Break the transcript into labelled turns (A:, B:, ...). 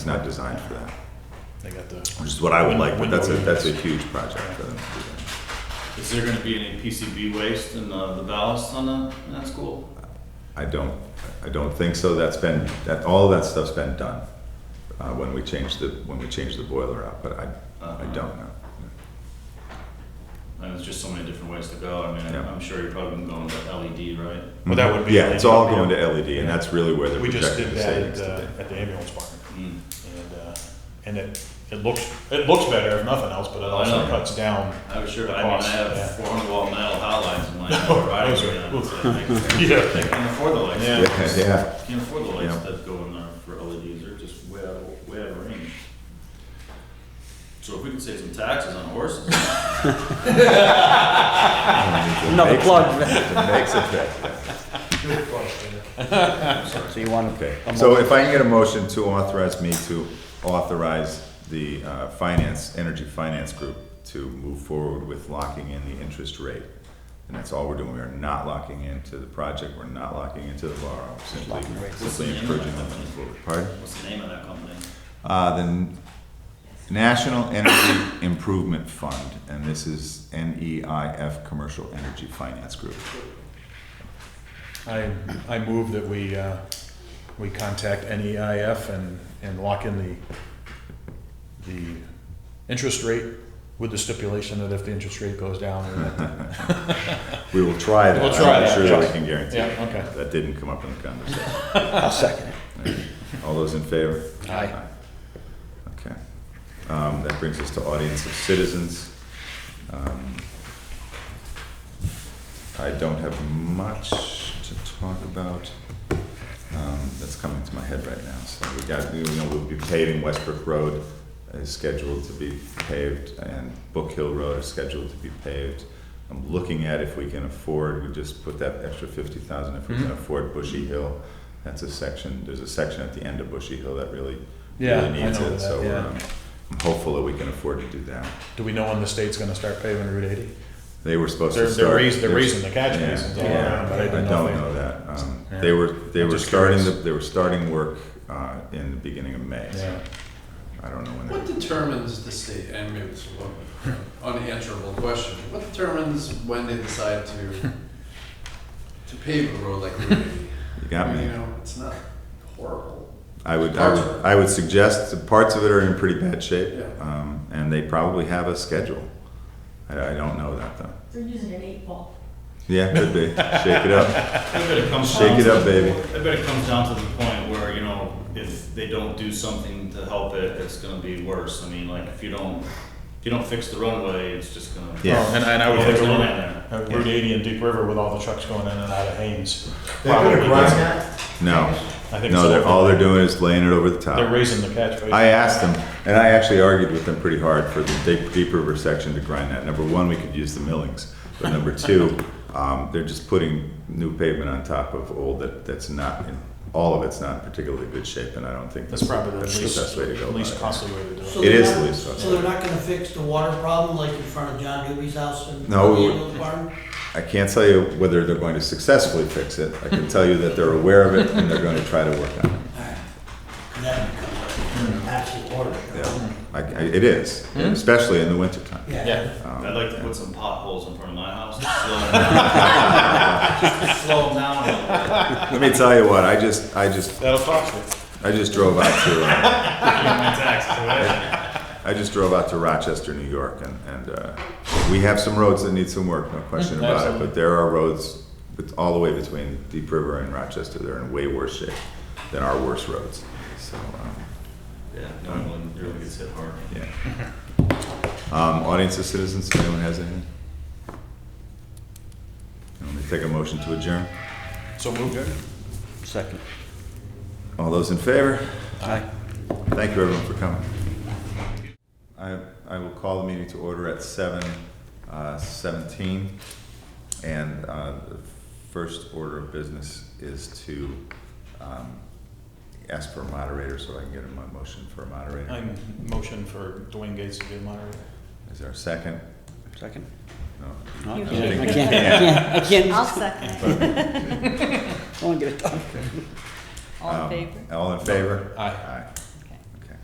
A: It's not designed for that,
B: They got the.
A: which is what I would like, but that's a, that's a huge project for them to do
C: Is there gonna be any PCB waste in the, the ballast on the, in that school?
A: that. I don't, I don't think so, that's been, that, all that stuff's been done, uh, when we changed the, when we changed the boiler out, but I,
B: Uh-huh.
A: I don't know.
C: And there's just so many different ways to go, I mean, I'm-
A: Yeah.
C: I'm sure you're probably going to LED, E right?
B: Well, that would be.
A: Yeah, it's all going to LED, and that's really where they're
B: We just
A: projecting
B: did
A: the
B: that at
A: savings
B: the,
A: today.
B: at the ambulance barn,
C: Mm.
B: and, uh, and it, it looks, it looks better if nothing else, but it also
C: know.
B: cuts down.
C: I was sure,
B: The
C: I mean, I
B: cost, yeah.
C: have four hundred watt metal hot lights in my riding
B: those are-
C: around, so I think- I
B: Yeah.
C: can't afford the lights.
B: Yeah.
A: Yeah, yeah,
C: Can't afford the lights
A: Yeah.
C: that go in there for LEDs, they're just way out, of- way out of range. So if we could save some taxes on horses,
D: Another plug.
A: it makes a difference.
D: So you want to
A: Okay, so if I can get a motion to authorize me to authorize the uh, finance, energy finance group to move forward with locking in the interest rate. And that's all we're doing, we are not locking into the project, we're not locking into the borrow, simply,
D: Locking rates.
A: simply encouraging them to move forward. Pardon?
C: what's the name of that company?
A: Uh, the National Energy Improvement Fund, and this is NEIF Commercial Energy Finance Group.
B: I, I move that we, uh, we contact NEIF and, and lock in the, the interest rate with the stipulation that if the interest rate goes down. then-
A: We will try that,
B: We'll try
A: I'm not
B: that,
A: sure that I
B: yeah.
A: can guarantee
B: Yeah,
A: it.
B: okay.
A: That didn't come up in the conversation.
D: I'll second it.
A: All those in favor?
D: Aye.
A: Okay. Um, That brings us to audience of citizens. Um, I don't have much to talk about um, that's coming to my head right now. So we got, you know, we'll be paving Westbrook Road is scheduled to be paved and Book Hill Road is scheduled to be paved. I'm looking at if we can afford, we just put that extra fifty thousand if we can
B: Mhm.
A: afford Bushy Hill. That's a section, there's a section at the end of Bushy Hill that really,
B: Yeah,
A: really
B: I
A: needs
B: know
A: it,
B: that,
A: so
B: yeah.
A: um, I'm hopeful that we can afford to do that.
B: Do we know when the state's gonna start paving Route eighty?
A: They were supposed
B: They're,
A: to start.
B: they're raising, they're
A: there's-
B: raising the catch
A: yeah,
B: basins all
A: yeah,
B: around, but I
A: I
B: didn't
A: don't
B: know. if they-
A: know that. Um,
B: Yeah.
A: They were, they
B: I'm
A: were
B: just
A: starting, the
B: curious.
A: they were starting work uh, in the beginning of May, so
B: Yeah.
A: I don't know when
E: What
A: they,
E: determines the state, and maybe it's an unanswerable question, what determines when they decide to, to pave a road like Route eighty?
A: you got
E: You
A: me.
E: know, it's not horrible.
A: I would, I would, I would suggest, that parts of it are in pretty bad shape,
E: Yeah.
A: um, and they probably have a schedule. I, I don't know that though.
F: They're using an eight ball.
A: Yeah, could be, shake it up,
C: I bet it comes down
A: shake it
C: to-
A: up, baby.
C: I bet it comes down to the point where, you know, if they don't do something to help it, it's gonna be worse. I mean, like, if you don't, if you don't fix the runway, it's just gonna.
A: Yeah.
B: Oh, And, and I would
C: Well,
B: think
C: there's
B: of
C: one
B: Route-
C: out
B: uh, Route eighty and Deep River with all the trucks going in and out of Haynes.
A: They're gonna
B: Probably
A: grind
B: doesn't-
A: No,
B: I think
A: no,
B: so.
A: they're, all they're doing is laying it over the top.
B: They're raising the catch basin.
A: I asked them, and I actually argued with them pretty hard for the deep, deep river section to grind that. Number one, we could use the millings, but number two, um, they're just putting new pavement on top of old that, that's not, in all of it's not in particularly good shape, and I don't think
B: That's probably the
A: that's
B: least,
A: best way to go.
B: least
A: about it.
B: costly way to do it.
G: So
A: It
G: they're
A: is
G: not-
A: the least costly.
G: So they're not gonna fix the water problem like in front of John Newby's house and the
A: No, we-
G: ambulance barn?
A: I can't tell you whether they're going to successfully fix it. I can tell you that they're aware of it and they're going to try to work on it.
G: That becomes an absolute water show.
A: Yeah, I, I, it is, especially in the wintertime.
B: Hmm? Yeah,
A: Um,
C: I'd like to
A: yeah.
C: put some potholes in front of my house to slow them down. Just to slow them down a little bit.
A: Let me tell you what, I just, I just
B: that'll cost it.
A: I just drove out to uh,
C: My taxes, right?
A: I just drove out to Rochester, New York, and and uh, we have some roads that need some work, no question about it. But
B: Absolutely.
A: there are roads, bet- all the way between Deep River and Rochester, they're in way worse shape than our worst roads. So um,
C: Yeah, no one really gets hit hard.
A: yeah. Um, audience of citizens, if anyone has anything. Let me take a motion to adjourn.
B: So move it.
D: Second.
A: All those in favor?
D: Aye.
A: Thank you, everyone, for coming. I, I will call the meeting to order at seven uh, seventeen. And uh, the first order of business is to um, ask for a moderator, so I can get a mo- motion for a moderator.
B: I'm motion for Dwayne Gates to be the moderator.
A: Is there a second?
D: Second?
A: No.
D: No, I
F: You
D: can't, I
A: can't.
D: can't, I can't, I
F: I'll second it.
D: can't, I wanna get it done.
F: All in favor?
A: Um, All in favor?
B: Aye.
A: Aye.